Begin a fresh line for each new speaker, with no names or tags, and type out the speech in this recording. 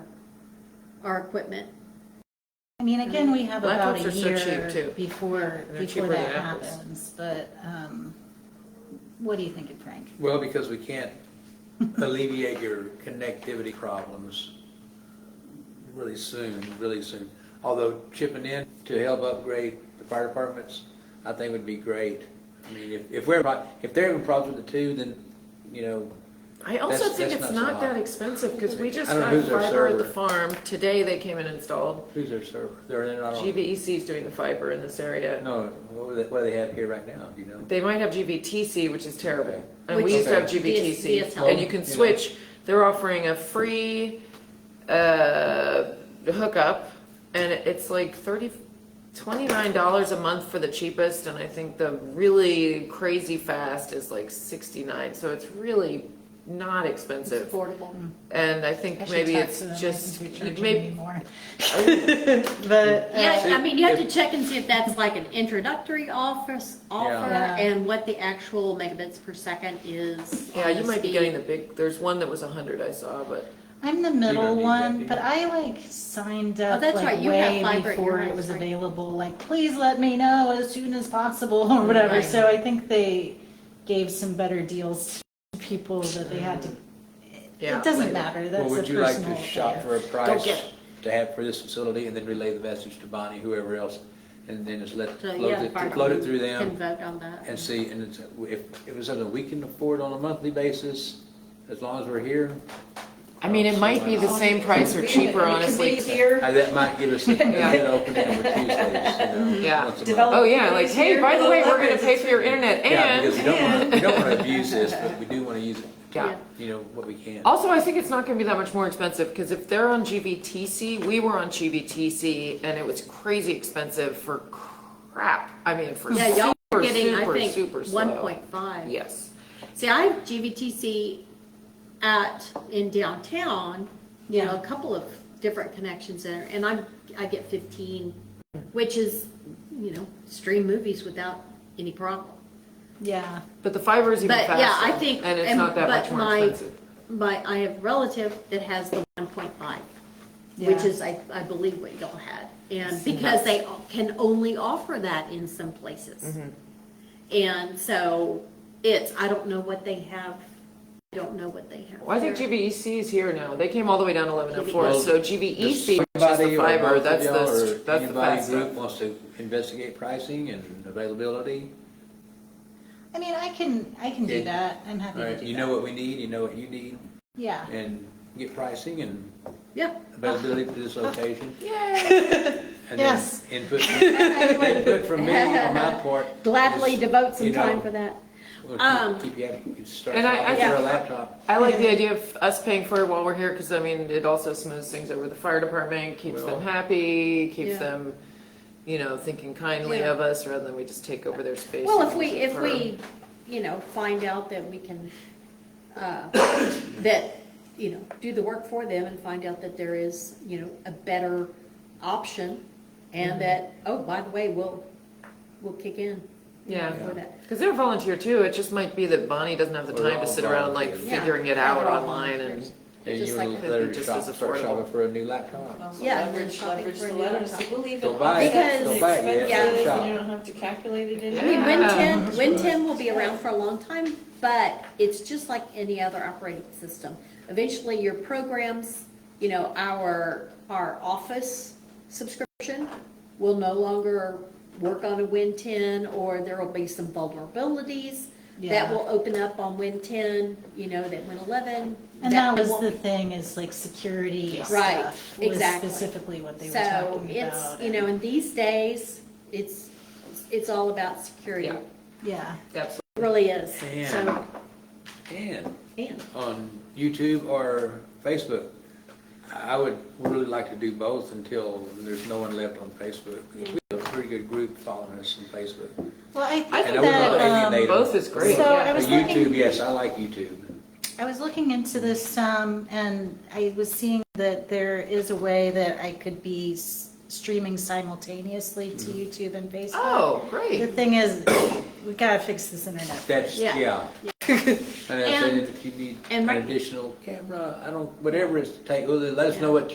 our equipment.
I mean, again, we have
Black
about a
ones are so cheap,
year
too.
before,
they're
before
cheaper
that
than apples.
happens, but, um, what do you think of Frank?
Well, because we can't alleviate your connectivity problems really soon, really soon. Although chipping in to help upgrade the fire departments, I think would be great. I mean, if, if we're, pro- if they're having problems with the two, then, you know,
I also
That's-
think
that's
it's
not so
not that
hot.
expensive, because we just
I don't know
got
who's their
fiber at the
server.
farm, today they came and installed.
who's their server? They're, they're not on.
GVEC is doing the fiber in this area.
Oh. No, what do they- what do they have here right now, do you know?
They might have GVTC, which is terrible, and
Which
we used to have
Okay.
GVTC,
VSL.
and you can
Well, you know.
switch, they're offering a free, uh, hookup, and it's like thirty, twenty-nine dollars a month for the cheapest, and I think the really crazy fast is like sixty-nine, so it's really not
It's
expensive.
affordable.
And I think maybe it's just, maybe,
But, uh,
Yeah,
See,
I mean, you have to
if-
check and see if that's like an introductory office, offer,
Yeah.
and what the actual megabits per second is.
yeah,
on
you
the
might be
speed.
getting the big, there's one that was a hundred I saw, but
I'm the
You
middle
don't need
one,
that,
but
do
I like signed up
Oh, that's right,
like
you have
way
fiber at your
before it
house,
was
right?
available, like, please let me know as soon as possible
Mm-hmm.
or whatever.
Right.
So I think they gave some better deals to people that they had to,
Mm-hmm. yeah.
it doesn't
later.
matter,
Well,
that's a
would you like
personal
to shop
affair.
for a price
get it.
to have for this facility and then relay the message to Bonnie, whoever else? And then just let,
So,
float
yeah,
it,
fire
float it
department
through
Can
them
vote on that.
and see, and it's, if, if it's something we can afford on a monthly basis, as long as we're here.
I mean,
Oh,
it might be the same price or cheaper, honestly.
uh, That might give us a good opening over Tuesdays, you know.
Yeah.
once a month.
Oh, yeah, like, hey, by the way, we're gonna pay for your internet
Yeah, because
and,
we don't want to, we don't want to abuse this, but we do want to use it,
yeah.
you know, what we can.
Also, I think it's not gonna be that much more expensive, because if they're on GVTC, we were on GVTC, and it was crazy expensive for crap. I mean, for
Yeah, y'all are
super,
getting, I
super,
think,
super slow.
one point five.
Yes.
See, I have GVTC at, in downtown, you know, a couple of different connections there, and I'm, I get fifteen, which is, you know, stream movies without any problem.
Yeah,
But the fiber is even
But,
faster.
yeah, I think-
And it's
and-
not that
but
much more
my-
expensive.
But I have relative that has the one point five, which
Yeah.
is, I, I believe what y'all had. And because they can only offer that in some places. And so it's, I don't know what they have, I don't know what they have.
Well, I think
there.
GVEC is here now. They came all the way down to eleven oh four,
Well,
so GVEC, which is
Somebody
the
or both
fiber,
of
that's
y'all or
the, that's the
anybody
fast stuff.
group Wants to investigate pricing and availability.
I mean, I can, I can do
Yeah.
that, I'm happy
All
to
right,
do that.
you know what we need, you know what you need,
Yeah,
and get pricing and
Yeah.
availability for this location. And then
Yes.
Input, input from me on my part.
Gladly
is,
devote some
you know,
time for that.
we'll
Um,
Keep you happy, you can start
And I- I
off with
think-
your laptop.
I like the idea of us paying for it while we're here, because I mean, it also smooths things over the fire department, keeps
Well-
them happy,
Yeah.
keeps them, you know, thinking kindly
Yeah.
of us, rather than we just take over their space.
Well,
and
if we,
use it
if
for-
we, you know, find out that we can, uh, that, you know, do the work for them and find out that there is, you know, a better option and that, oh, by the way, we'll, we'll kick in. you know,
Yeah.
for that.
Because they're volunteer too, it just might be that Bonnie doesn't have the
We're
time to
all
sit around like
volunteers.
figuring it
Yeah.
out
Overall,
online and,
there's-
And
just
you
like
would
the-
let her
just
shop,
as
start
affordable.
shopping for a new laptop.
Yeah,
Leverage,
we're shopping
leverage
for a
the
new
letters,
laptop.
we'll leave it.
Don't buy it.
because
Don't
buy it yet.
it's expensive
Shop.
and You don't have to calculate it in.
I mean,
Yeah.
Win 10, Win 10 will be around for a long time, but it's just like any other operating system. Eventually, your programs, you know, our, our office subscription will no longer work on a Win 10, or there will be some vulnerabilities that
Yeah.
will open up on Win 10, you know, that Win 11.
and that was
won't
the thing, is like security
Right,
stuff was
exactly.
specifically what they were
So
talking about.
it's, you know, in these days, it's, it's all about security.
Yeah.
It
Yeah.
that's,
really is.
And,
So,
and
and.
on YouTube or Facebook. I would really like to do both until there's no one left on Facebook. We have a pretty good group following us on Facebook.
Well, I
I
think
And I would not
that, um,
alienate them.
both is great,
So I
yeah.
But
was
YouTube,
looking,
yes, I like YouTube.
I was looking into this, um, and I was seeing that there is a way that I could be s- streaming simultaneously to
Mm-hmm.
YouTube and Facebook.
Oh,
The
great.
thing is, we gotta fix this internet.
That's,
Yeah.
yeah. And I said,
And-
if you need
and
an
right-
additional camera, I don't, whatever it's to take, well, let us know what